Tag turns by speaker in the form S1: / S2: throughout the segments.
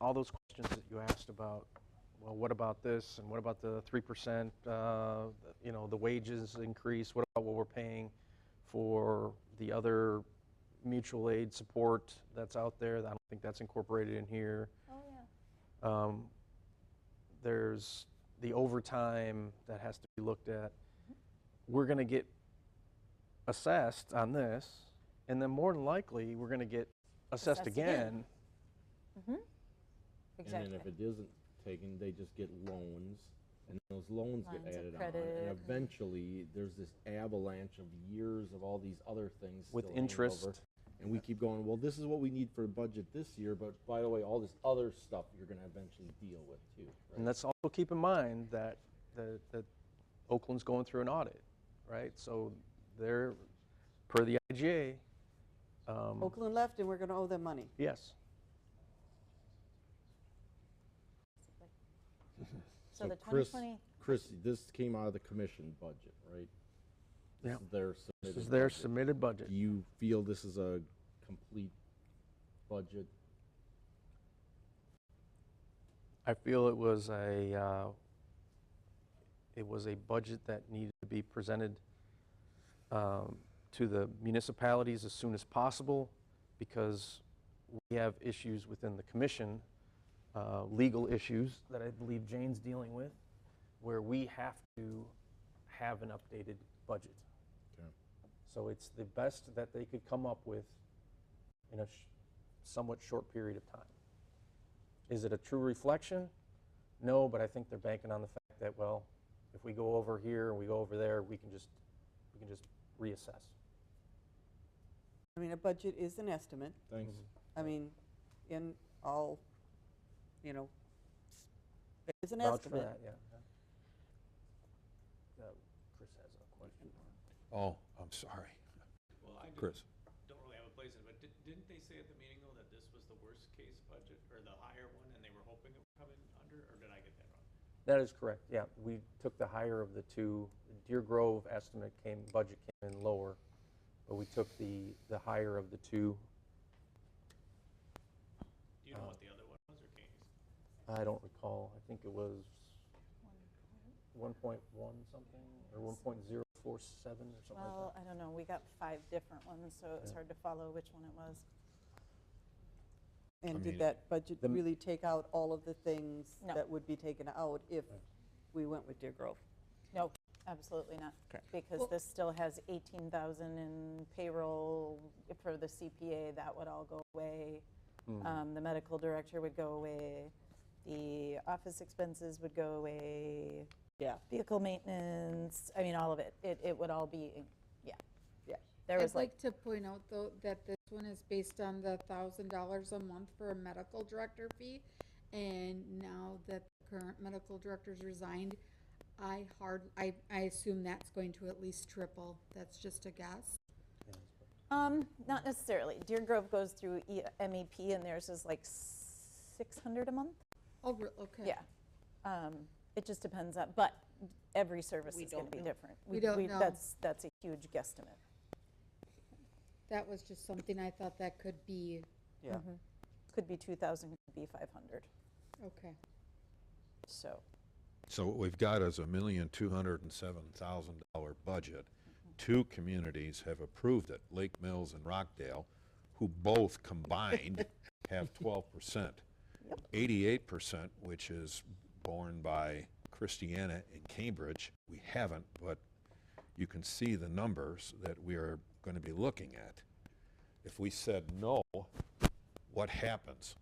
S1: all those questions that you asked about, well, what about this, and what about the 3%, uh, you know, the wages increase, what about what we're paying for the other mutual aid support that's out there, I don't think that's incorporated in here.
S2: Oh, yeah.
S1: Um, There's the overtime that has to be looked at. We're going to get assessed on this, and then more than likely, we're going to get assessed
S2: Assessed again.
S1: again.
S2: Exactly.
S3: And then if it isn't taken, they just get loans, and those loans get
S2: Lines of
S3: added on.
S2: credit.
S3: And eventually, there's this avalanche of years of all these other things.
S1: With
S3: still hanging over,
S1: interest.
S3: And we keep going, well, this is what we need for a budget this year, but by the way, all this other stuff you're gonna eventually deal with too.
S1: And let's also keep in mind that, that that Oakland's going through an audit, right? So they're, per the IGA, um,
S4: Oakland left and we're going to owe them money.
S1: yes.
S2: So the
S3: Chris-
S2: 2020,
S3: Chris, this came out of the commission budget, right? This
S1: Yeah.
S3: is Their
S1: This
S3: submitted.
S1: is their
S3: budget.
S1: submitted budget.
S3: Do you feel this is a complete budget?
S1: I feel it was a, uh, it was a budget that needed to be presented um, to the municipalities as soon as possible because we have issues within the commission, uh, legal issues that I believe Jane's dealing with, where we have to have an updated budget.
S3: Okay.
S1: So it's the best that they could come up with in a sh- somewhat short period of time. Is it a true reflection? No, but I think they're banking on the fact that, well, if we go over here and we go over there, we can just, we can just reassess.
S4: I mean, a budget is an estimate.
S3: Thanks.
S4: I mean, in all, you know, it's an
S1: Vouch for
S4: estimate.
S1: that, yeah. Uh, Chris has a question.
S5: Oh, I'm sorry.
S6: Well, I
S5: Chris?
S6: don't really have a place in it, but di- didn't they say at the meeting though that this was the worst case budget or the higher one and they were hoping it would come in under, or did I get that wrong?
S1: That is correct, yeah. We took the higher of the two. Deer Grove estimate came, budget came in lower, but we took the, the higher of the two.
S6: Do you know what the other one was or can't you? s-
S1: I don't recall, I think it was 1.1 something, or 1.047 or something
S3: Oh,
S1: like that.
S2: well, I don't know, we got five different ones, so it was
S1: Yeah.
S2: hard to follow which one it was.
S4: And
S5: mean,
S4: did that budget
S1: the m-
S4: really take out all of the things
S2: No.
S4: that would be taken out if we went with Deer Grove?
S2: No, absolutely not. Because this still has 18,000 in payroll for the CPA, that would all go away.
S3: Hmm.
S2: Um, The medical director would go away, the office expenses would go away,
S4: Yeah,
S2: vehicle maintenance, I mean, all of it. It, it would all be, yeah,
S4: yeah.
S2: there was like,
S7: I'd like to point out, though, that this one is based on the thousand dollars a month for a medical director fee. And now that the current medical director's resigned, I hard, I, I assume that's going to at least triple. That's just a guess.
S2: um, not necessarily. Deer Grove goes through E- MEP and theirs is like 600 a month.
S7: Oh, re- okay.
S2: Yeah. Um, It just depends on, but every service is going to be different.
S7: We don't know.
S2: That's, that's a huge guesstimate.
S7: That was just something I thought that could be,
S4: Yeah.
S2: Could be 2,000, could be 500,
S7: okay.
S2: so.
S5: So what we've got is a million, two hundred and seven thousand dollar budget. Two communities have approved it, Lake Mills and Rockdale, who both combined have twelve percent. Eighty-eight percent, which is borne by Christiana and Cambridge, we haven't, but you can see the numbers that we are gonna be looking at. If we said no, what happens?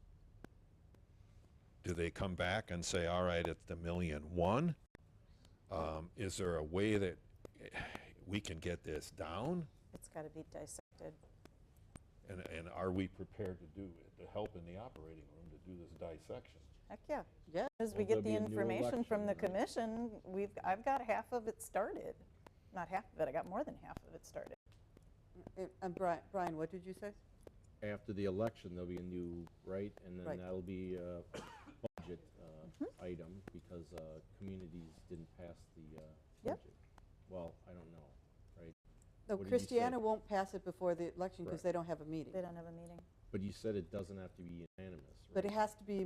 S5: Do they come back and say, all right, at the million one? Um, is there a way that eh, we can get this down?
S2: It's got to be dissected.
S5: And, and are we prepared to do, to help in the operating room to do this dissection?
S2: Heck, yeah.
S4: Yeah.
S2: As we
S3: Will
S2: get
S3: there
S2: the
S3: be a new
S2: information from the
S3: election, right?
S2: commission, we've, I've got half of it started. Not half of it, I got more than half of it started.
S4: And- And Brian, Brian, what did you say?
S3: after the election, there'll be a new, right? And
S4: Right.
S3: then that'll be a budget uh, item because uh, communities didn't pass the uh,
S2: Yep.
S3: budget. Well, I don't know, right?
S4: No,
S3: What did you say?
S4: Christiana won't pass it before the election because
S3: Right.
S4: they don't have a meeting.
S2: They don't have a meeting.
S3: But you said it doesn't have to be unanimous, right?
S4: But it has to be